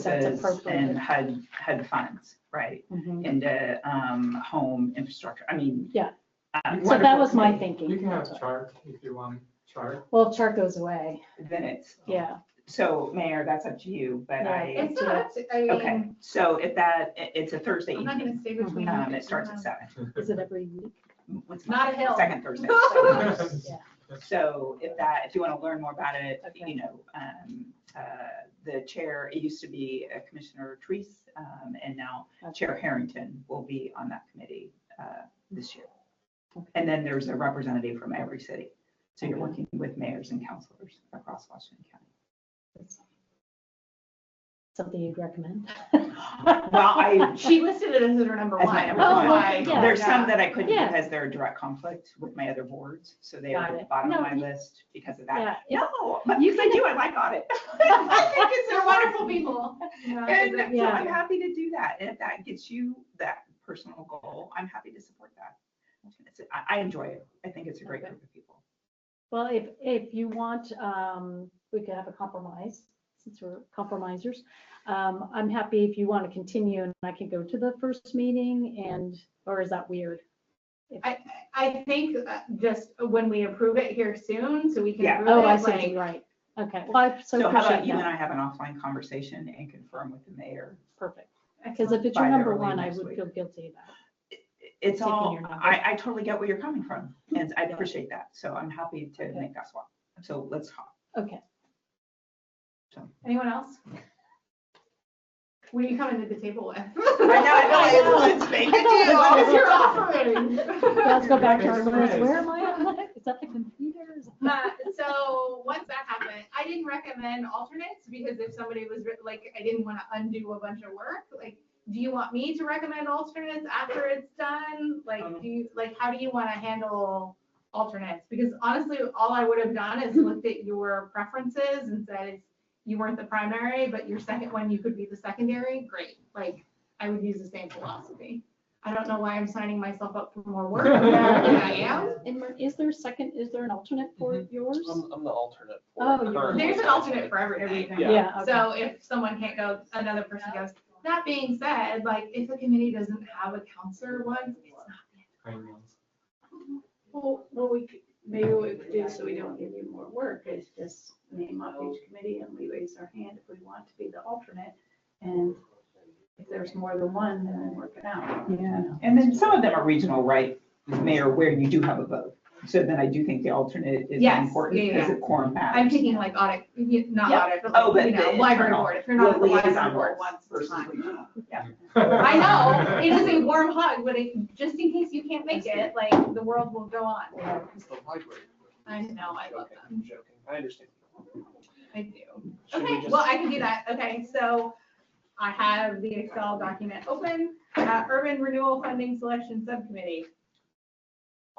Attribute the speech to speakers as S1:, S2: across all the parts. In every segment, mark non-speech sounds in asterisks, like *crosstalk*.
S1: services
S2: appropriated.
S1: and HUD, HUD funds, right?
S2: Mhm.
S1: Into um, home infrastructure, I mean.
S2: Yeah.
S1: uh,
S3: You
S2: So
S1: what-
S2: that was my
S3: You
S2: thinking.
S3: can have chart if you want chart.
S2: *laughs* Well, chart goes away,
S1: Then it's,
S2: yeah.
S1: so Mayor, that's up to you, but I,
S4: It's not, I
S1: okay,
S4: mean,
S1: so if that, i- it's a Thursday
S4: I'm not
S1: evening,
S4: gonna say which
S2: Mm-hmm.
S4: one.
S1: um, it starts at seven.
S2: Is it every week?
S1: What's
S4: Not a
S1: Monday?
S4: hill.
S1: Second
S4: *laughs*
S1: Thursday.
S2: Yeah.
S1: So if that, if you want to learn more about it,
S2: Okay.
S1: you know, um, uh, the chair, it used to be uh, Commissioner Treese, um, and now Chair Harrington will be on that committee uh, this year. And then there's a representative from every city. So you're working with mayors and councilors across Washington
S2: *laughs*
S1: County.
S2: Something you'd recommend?
S1: Well, I,
S4: *laughs* She listed it as her number
S1: as my
S4: one.
S1: number
S2: Oh,
S1: one.
S2: why? yeah.
S1: There's
S4: *laughs*
S1: some that I couldn't
S2: Yeah.
S1: because they're a direct conflict with my other boards, so they are
S2: Got
S1: at the
S2: it.
S1: bottom of
S2: No,
S1: my
S2: you-
S1: list because of that.
S2: Yeah. it-
S1: No, but
S2: You
S1: because I do, I like audit. I think it's
S4: They're
S1: important.
S4: wonderful people.
S1: *laughs* And so
S2: Yeah.
S1: I'm happy to do that. And if that gets you that personal goal, I'm happy to support that. It's- I, I enjoy it. I think it's a great
S2: Okay.
S1: group of people.
S2: Well, if, if you want, um, we could have a compromise, since we're compromisers. Um, I'm happy if you want to continue and I can go to the first meeting and, or is that weird?
S4: I, I think uh, just when we approve it here soon, so we can
S1: Yeah.
S4: approve
S2: Oh, I
S4: it,
S2: see, what you-
S4: like,
S2: right. Okay, well, I so
S1: So how about
S2: appreciate
S1: you and
S2: that.
S1: I have an offline conversation and confirm with the mayor?
S2: Perfect. Because
S4: excellent.
S2: if it's your
S1: By
S2: number
S1: early
S2: one, I
S1: next
S2: would
S1: week.
S2: feel guilty about it.
S1: It's
S2: Taking
S1: all,
S2: your number.
S1: I, I totally get where you're coming from and I
S2: Yeah.
S1: appreciate that. So I'm happy to
S2: Okay.
S1: make that swap. So let's talk. *laughs*
S2: Okay,
S4: Anyone else? What are you coming to the table with?
S1: I know, I know,
S4: *laughs*
S2: I
S1: it's- it's big to
S2: I know,
S1: do.
S2: I
S4: What
S2: know.
S4: is your offering?
S1: *laughs*
S2: let's go back to our
S3: It's
S2: list.
S3: nice.
S2: Where am I on that? Is that the computers?
S4: Uh, So once that happened, I didn't recommend alternates because if somebody was re- like, I didn't want to undo a bunch of work, like, do you want me to recommend alternates after it's done? Like, do you, like, how do you want to handle alternates? Because honestly, all I would have done is looked at your preferences and said, you weren't the primary, but your second one, you could be the secondary, great. Like, I would use the same philosophy. I don't know why I'm signing myself up for more work than I am.
S2: *laughs* And Mar- is there a second, is there an alternate for yours?
S5: I'm, I'm the alternate. for
S2: Oh,
S5: it
S2: you're-
S5: currently.
S4: There's an alternate for
S1: *laughs*
S4: every- everything.
S5: Yeah.
S2: Yeah, okay.
S4: So if someone can't go, another person goes. That being said, like, if a committee doesn't have a counselor one, it's not.
S6: Well, what we, could- maybe what we could do so we don't give you more work is just name off each committee and we raise our hand if we want to be the alternate. And if there's more than one, then we work it out.
S1: Yeah, and then some of them are regional, right, Mayor, where you do have a vote. So then I do think the alternate is
S4: Yes,
S1: important
S4: yeah,
S1: because
S4: yeah.
S1: of quorum
S4: I'm
S1: matters.
S4: thinking like audit, you- not
S1: Yep.
S4: audit, but
S1: Oh, but
S4: like, you know,
S1: the
S4: library
S1: internal,
S4: board, if you're not on the
S1: the liaison
S4: library board
S1: roles
S4: once, it's
S1: versus
S4: fine.
S5: uh,
S1: regional.
S4: I
S2: *laughs*
S3: *laughs*
S4: know, it is a warm hug, but it, just in case you can't make it, like, the world will go on.
S5: It's the library.
S4: I know, I love
S5: Joking,
S4: them.
S5: I'm joking, I understand.
S4: I do.
S5: Should we
S4: Okay,
S5: just-
S4: well, I can do that. Okay, so I have the Excel document open, uh, urban renewal funding selection subcommittee.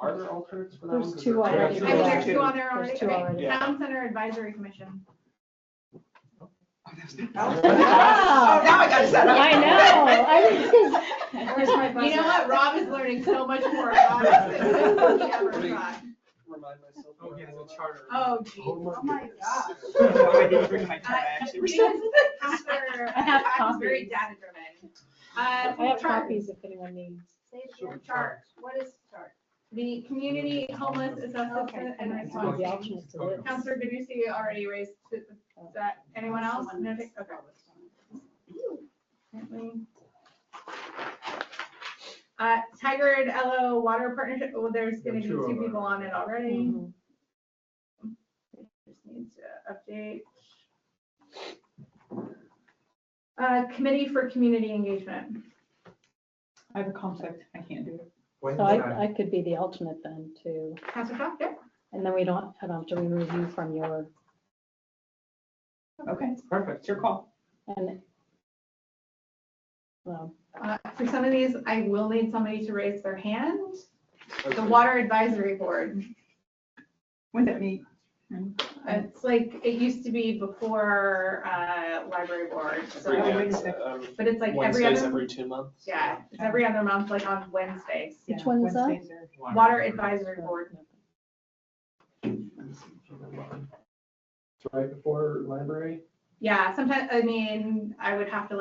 S5: Are there alternates for that one?
S2: There's
S5: 'Cause
S2: two
S5: there-
S2: already.
S4: I
S5: Yeah,
S4: think there's
S5: two.
S4: two on there already.
S2: There's two
S4: Okay.
S2: already.
S5: Yeah.
S4: Town Center Advisory Commission.
S1: Oh, now I got set up.
S2: *laughs* I know, I was just.
S6: Where's my
S4: You know what? Rob is learning so much more about this than he ever thought.
S5: Remind myself.
S3: Oh, yeah, there's a charter.
S4: Oh, geez.
S6: Oh, my God.
S1: I didn't bring my
S4: Uh,
S1: card, I actually
S4: because
S1: received-
S4: Casper,
S2: I have
S4: uh, is Very
S2: copies.
S4: data driven.
S2: I
S4: Uh,
S2: have
S4: chart,
S2: copies if anyone needs.
S3: Sure.
S6: Chart, what is chart?
S4: the community homeless
S6: Okay.
S4: assessment and response.
S2: The alternates to this.
S4: Counselor Gaducy already raised, is that, anyone else? No, okay. Uh, Tigard LO Water Partnership, well, there's gonna be
S3: There are two of
S4: two
S3: them.
S4: people on it already.
S2: Mhm.
S4: Just needs to update. Uh, Committee for Community Engagement.
S1: I have a conflict, I can't do it.
S3: When's
S2: So
S3: that?
S2: I, I could be the alternate then too.
S4: Counselor Shaw, yeah?
S2: And then we don't, I don't have to remove you from your,
S1: Okay,
S3: Perfect.
S1: it's your call.
S2: and. Well,
S4: Uh, For some of these, I will need somebody to raise their hand. The
S5: Okay.
S4: Water Advisory Board.
S1: When's that meet?
S4: It's like, it used to be before uh, library board, so,
S5: Every-
S1: wait a
S5: yeah,
S1: second.
S5: um,
S4: but it's like every
S5: Wednesdays
S4: other,
S5: every two months.
S4: yeah, it's every other month, like on Wednesdays.
S2: Which
S1: Yeah,
S2: one's that?
S1: Wednesdays are-
S4: Water Advisory Board.
S3: It's right before library.
S4: yeah, sometimes, I mean, I would have to